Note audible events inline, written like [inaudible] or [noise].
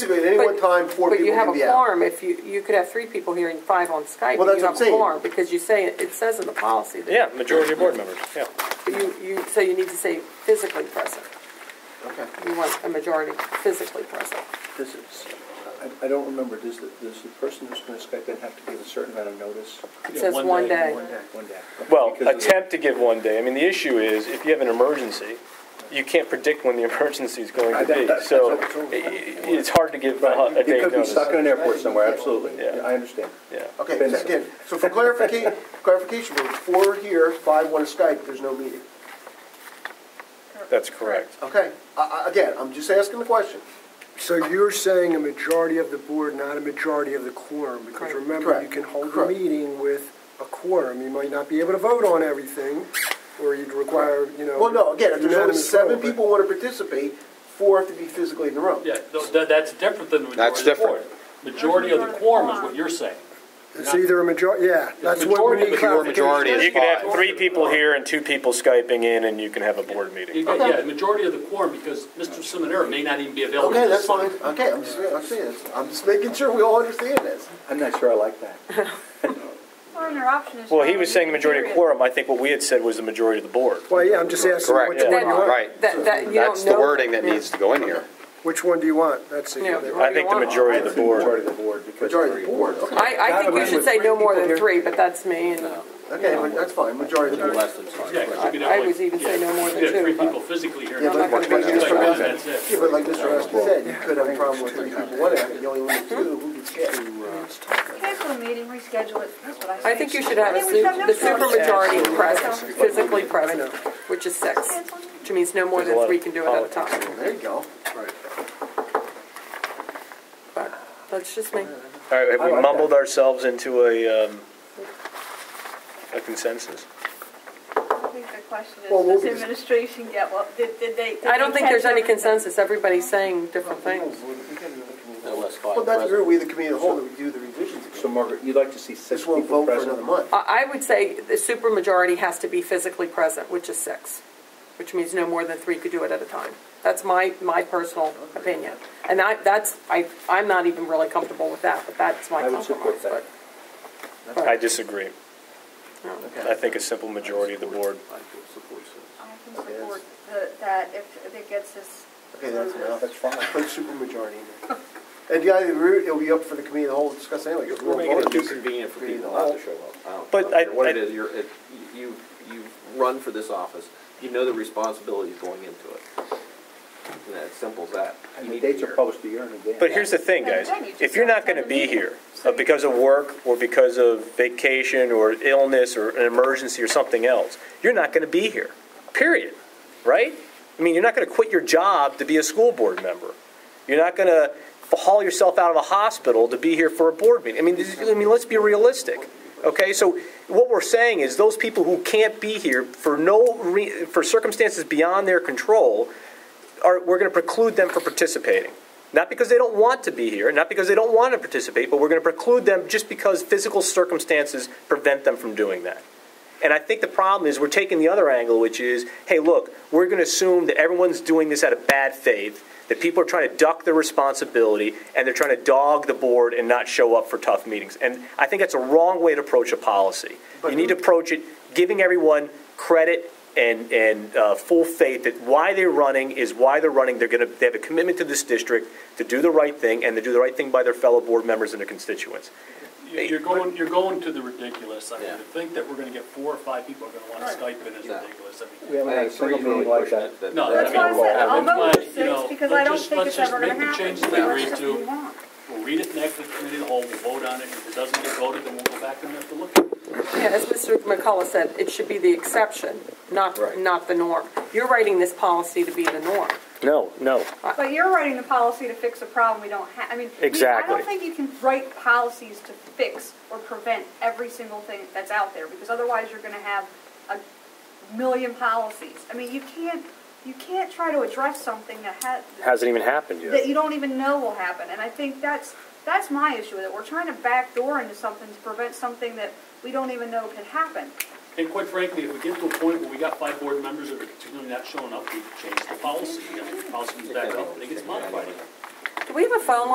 Basically, at any one But- time, four But you people have can a be out. quorum, if you, you could have three people here and five on Skype, Well, and that's what you have I'm a saying. quorum, because you say, it it says in the policy that Yeah, majority of board members, yeah. you, you, so you need to say physically present. Okay. You want a majority physically present. Does it, I, I don't remember, does the, does the person who's gonna Skype in have to give a certain amount of notice? It says one day. One day. Well, Because of the- attempt to give one day. I mean, the issue is if you have an emergency, you can't predict when the [laughs] emergency is going I- to that- be. that- So that's what- i- i- it's hard to give a Right, a it day could be notice. stuck in an airport somewhere, absolutely, Yeah. Yeah, I understand. Yeah. Okay, Been so so. again, so for clarification, clarification, we're four here, five want to Skype, there's no meeting. That's correct. Okay, I, I, again, I'm just asking the question. So you're saying a majority of the board, not a majority of the quorum? Because Correct. remember, you Correct. can hold a Correct. meeting with a quorum. You might not be able to vote on everything, or you'd require, you know. Well, no, again, if there's only unanimous seven vote, but- people want to participate, four have to be physically in the room. Yeah, no, that, that's different than the majority That's of the quorum. different. Majority of the quorum is what you're saying. It's either a major, yeah, that's what we majority, need but your clarification. majority is- You can have three people here and two people Skyping in, and you can have a board You meeting. got, yeah, the majority of the quorum, because Mr. Seminara may not even be available. Okay, that's this fine, Sunday. okay, I'm just, I'm saying this, I'm just making sure we all understand this. I'm not sure I like that. Well, and their option is. Well, he was saying the majority of period. quorum. I think what we had said was the majority of the board. Well, yeah, I'm just asking Correct. which Yeah. one That- you want. Right. That, that, you don't know. That's the wording that Yeah. needs to go in here. Which one do you want? That's the. Yeah. I think the majority of the board. Majority of the board, because. Majority of the board, okay. I, I think you should say no more than three, but that's me, and uh, Okay, well, that's fine, majority of the board. Yeah, 'cause you could I have like- was even say yeah, no more than You could have two, three but- people physically here. Yeah, I'm but not like gonna Mr. make it Like, Raskin That's it. yeah, but like Mr. Raskin said, you could have a problem with three people, What if you only want two, who gets uh, hit? Cancel the meeting, reschedule it, that's what I say. I think you should have a I think su- we should have the no quorum. supermajority present, Yeah. physically present, which is six, Cancel the meeting. which means no more There's a lot than of three can do it at a time. There you go. But That's just me. All right, have I we like mumbled ourselves into a, um, a consensus? I think the question Well, we'll is, be- does administration get what, did, did they? did I don't they think there's catch any everything? consensus, everybody's saying different things. Well, that's where we, the committee of the whole, that we do the revisions So again. Margaret, you'd like to see six This won't people vote for present? another month. I, I would say the supermajority has to be physically present, which is six, which means no more than three could do it at a time. That's my, my personal opinion. And I, that's, I, I'm not even really comfortable with that, but that's my I would compromise. support that. I disagree. but, yeah. I think a simple majority of the board. I can support the- that if it gets this. Okay, that's enough. That's fine. Put supermajority in there. And the other route, it'll be up for the committee of the whole to discuss anyway. 'cause We're we'll making it vote. too convenient for people not to show up. I don't- But I- don't care What it I- is, you're, it- you, you run for this office, you know the responsibilities going into it. And as simple as that. You And the need to be dates are here. published a year in advance. But here's the thing, guys, if you're not gonna be here uh, because of work or because of vacation or illness or an emergency or something else, you're not gonna be here, period, right? I mean, you're not gonna quit your job to be a school board member. You're not gonna haul yourself out of a hospital to be here for a board meeting. I mean, this- I mean, let's be realistic, okay? So what we're saying is those people who can't be here for no, re- for circumstances beyond their control, are, we're going to preclude them from participating. Not because they don't want to be here, not because they don't want to participate, but we're going to preclude them just because physical circumstances prevent them from doing that. And I think the problem is we're taking the other angle, which is, hey, look, we're going to assume that everyone's doing this out of bad faith, that people are trying to duck their responsibility, and they're trying to dog the board and not show up for tough meetings. And I think that's a wrong way to approach a policy. You need to approach it giving everyone credit and, and uh, full faith that why they're running is why they're running. They're going to they have a commitment to this district to do the right thing and to do the right thing by their fellow board members and their constituents. You- You're going, you're going to the ridiculous. I mean, Yeah. to think that we're gonna get four or five people are gonna wanna Skype in is No. ridiculous. I mean, We haven't had a Thanks for single really meeting like pushing that. it, that. No, that That's why I we won't said, have I'll it. vote But, with you six, know, because I let's don't just- think let's it's just ever gonna make the happen. change that That's agreed what to. we want. We'll read it next to the committee of the whole, we'll vote on it. If it doesn't get voted, then we'll go back and have to look at it. Yeah, as Mr. McCullough said, it should be the exception, not, Right. not the norm. You're writing this policy to be the norm. No, no. But you're writing the policy to fix a problem we don't have, I mean. we- I Exactly. don't think you can write policies to fix or prevent every single thing that's out there, because otherwise you're gonna have a million policies. I mean, you can't, you can't try to address something that has. Hasn't even happened That you don't even know will happen, and I think that's, that's my issue with it, we're trying to backdoor into something to prevent something that we don't even know could happen. And quite frankly, if we get to a point where we got five board members that are continually not showing up, we change the policy. I mean, the policy comes back up and it gets modified. Do we have a phone line